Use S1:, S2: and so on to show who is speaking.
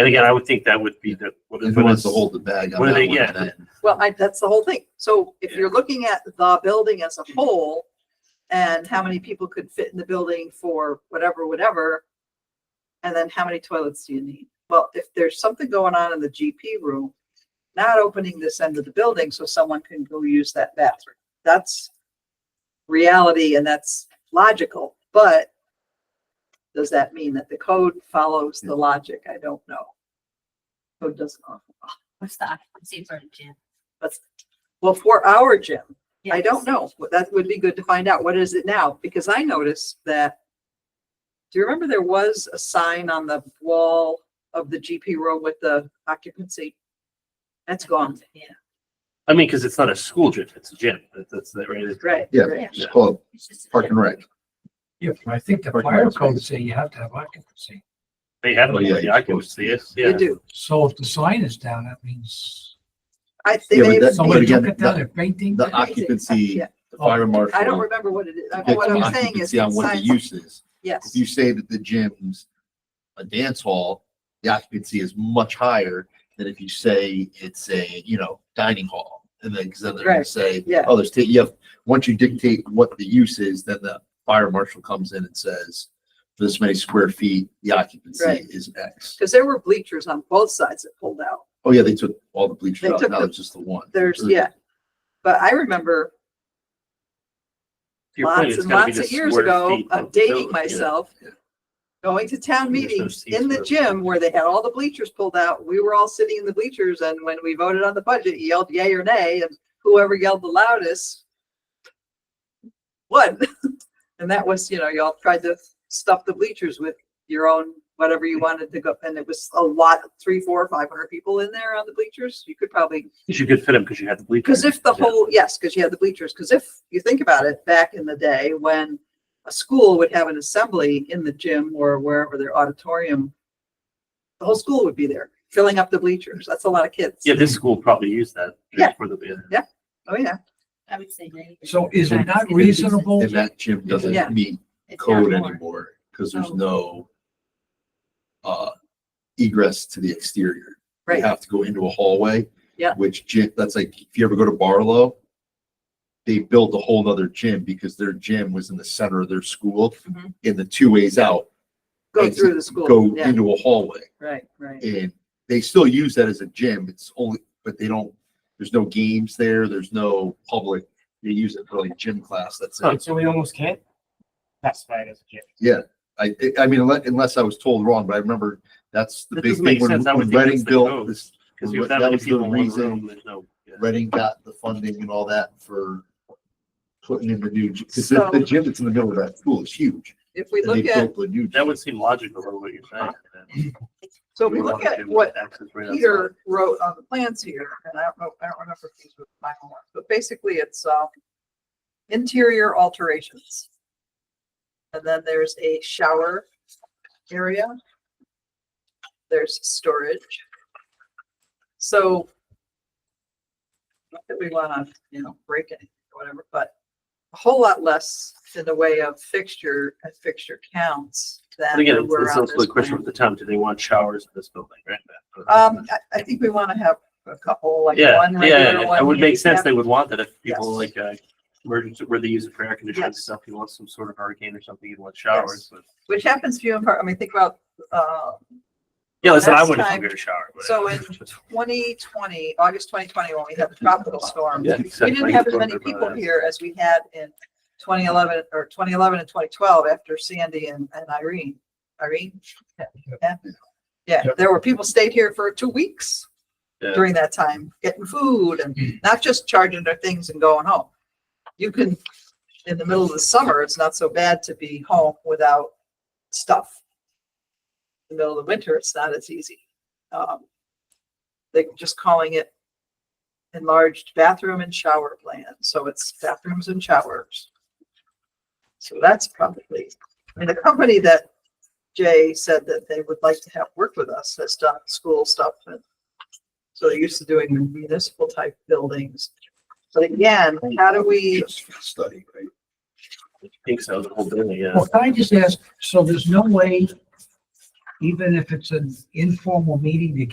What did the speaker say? S1: And again, I would think that would be the. what-
S2: If it
S1: what
S2: wants to
S1: it's-
S2: hold the bag on
S1: what do
S2: that
S1: they
S2: one,
S1: get?
S2: then-
S3: Well, I, that's the whole thing. So if you're looking at the building as a whole and how many people could fit in the building for whatever, whatever, and then how many toilets do you need? Well, if there's something going on in the GP room, not opening this end of the building so someone can go use that bathroom. That's reality and that's logical, but does that mean that the code follows the logic? I don't know. Code doesn't often
S4: What's the occupancy for the gym?
S3: well, for our gym, I
S4: Yes.
S3: don't know. But That would be good to find out. What is it now? Because I noticed that. Do you remember there was a sign on the wall of the GP room with the occupancy? That's gone.
S4: Yeah.
S1: I mean, because it's not a school gym, it's a gym. That- That's that, right? It's-
S3: Right.
S2: Yeah.
S3: right.
S2: It's Club,
S4: It's just a
S2: park and rec.
S5: Yeah, but I think the
S2: Parking
S5: fire
S2: lot
S5: code
S2: space.
S5: say you have to have occupancy.
S1: They have
S2: Oh, yeah,
S1: the
S2: you're supposed
S1: occupancy,
S2: to.
S1: yes,
S3: You
S1: yeah.
S3: do.
S5: So if the sign is down, that means
S3: I
S2: Yeah,
S3: think
S2: but
S3: they,
S2: that-
S5: somebody
S2: again,
S5: took it down,
S2: the-
S5: they're painting.
S2: The occupancy,
S3: Yeah.
S2: the fire marshal.
S3: I don't remember what it is. I mean,
S2: gets
S3: What I'm saying is.
S2: occupancy On what the
S3: signs-
S2: use is. If
S3: Yes.
S2: you say that the gym's a dance hall, the occupancy is much higher than if you say it's a, you know, dining hall. And then, because then they're gonna
S3: Right,
S2: say,
S3: yeah.
S2: oh, there's, ta- you have, once you dictate what the use is, then the fire marshal comes in and says, for this many square feet, the occupancy
S3: Right.
S2: is X.
S3: Because there were bleachers on both sides that pulled out.
S2: Oh, yeah, they took all the bleachers
S3: They
S2: out.
S3: took
S2: Now
S3: the-
S2: it's just the one.
S3: There's, yeah. But I remember
S1: To your point,
S3: lots
S1: it's
S3: and
S1: gotta be
S3: lots
S1: the
S3: of years
S1: square
S3: ago
S1: feet of
S3: of
S1: the building,
S3: dating
S1: yeah.
S3: myself,
S2: yeah.
S3: going to town
S1: There's no
S3: meetings
S1: seats
S3: in the
S1: for-
S3: gym where they had all the bleachers pulled out. We were all sitting in the bleachers and when we voted on the budget, you yelled yay or nay and whoever yelled the loudest won. And that was, you know, y'all tried to stuff the bleachers with your own, whatever you wanted to go. And it was a lot, three, four, five hundred people in there on the bleachers. You could probably
S1: 'Cause You could fit them because you had the bleachers.
S3: because if the
S1: Yeah.
S3: whole, yes, because you had the bleachers, because if you think about it, back in the day when a school would have an assembly in the gym or wherever their auditorium, the whole school would be there filling up the bleachers. That's a lot of kids.
S1: Yeah, this school probably used that.
S3: Yeah.
S1: For the,
S3: Oh, yeah.
S4: I would say ninety.
S5: So is it not
S4: It's-
S5: reasonable?
S2: And that gym
S3: Yeah.
S2: doesn't meet
S4: it's not
S2: code
S4: more.
S2: anymore because there's
S4: Oh.
S2: no uh, egress to the exterior. You
S3: Right.
S2: have to go into a hallway.
S3: Yeah.
S2: Which gym, that's like, if you ever go to Barlow, they built a whole nother gym because their gym was in the center of their school.
S3: Mhm.
S2: And the two ways out,
S3: Go
S2: Exit,
S3: through the school.
S2: go
S3: Yeah,
S2: into a hallway.
S3: right, right.
S2: And they still use that as a gym. It's only, but they don't, there's no games there. There's no public. They use it for like gym class. That's it.
S6: Oh, So we almost can't classify it as a gym.
S2: I, I mean, unless, unless I was told wrong, but I remember that's the
S1: That
S2: big
S1: doesn't
S2: thing
S1: make
S2: when
S1: sense. I would
S2: when
S1: think
S2: Reading
S1: that's the
S2: built
S1: code.
S2: this,
S1: because you have
S2: That
S1: that many
S2: was the
S1: people in one
S2: reason-
S1: room, there's no. yeah.
S2: Reading got the funding and all that for putting in the new, because
S3: So-
S2: the gym that's in the middle of that school is huge.
S3: If we
S2: And they
S3: look at,
S2: built the new.
S1: That
S2: gym.
S1: would seem logical, though, what you're saying.
S3: so if we look at what
S1: Access right outside.
S3: Peter wrote on the plans here, and I don't know, I don't remember if these were final ones, but basically it's, uh, interior alterations. And then there's a shower area. There's storage. So not that we wanna, you know, break it, or whatever, but a whole lot less in the way of fixture and fixture counts than.
S1: But again, it's
S3: were
S1: it's
S3: on
S1: also
S3: this
S1: the question
S3: plan.
S1: with the town, do they want showers in this building, right?
S3: Um, I, I think we want to have a couple, like
S1: Yeah,
S3: one
S1: yeah, yeah,
S3: regular,
S1: it
S3: one
S1: would make sense,
S3: handicap.
S1: they would want that if people
S3: Yes.
S1: like, uh, emergency, where they use it for air conditioning and
S3: Yes.
S1: stuff, you want some sort of hurricane or something, you'd want showers, but.
S3: Which happens few and far, I mean, think about, uh,
S1: Yeah, listen, I
S3: Next
S1: wouldn't
S3: time-
S1: figure a shower. but-
S3: so in twenty twenty, August twenty twenty, when we had the tropical storm.
S1: Yeah,
S3: We
S1: exactly.
S3: didn't have as many
S1: Talked about
S3: people
S1: that. uh,
S3: here as we had in twenty eleven, or twenty eleven and twenty twelve after Sandy and, and Irene. Irene? Yeah. Yeah,
S5: Yep.
S3: there were people stayed here for two weeks
S1: Yeah.
S3: during that time, getting food and not just charging their things and going home. You can, in the middle of the summer, it's not so bad to be home without stuff. In the middle of the winter, it's not as easy. Um, They just calling it enlarged bathroom and shower plan, so it's bathrooms and showers. So that's probably, and the company that Jay said that they would like to have work with us has done school stuff and so they're used to doing municipal type buildings. But again, how do we,
S2: Just for the study, right?
S1: I think so, the whole building, yeah.
S5: Well, can I just ask, so there's no way even if it's an informal meeting, you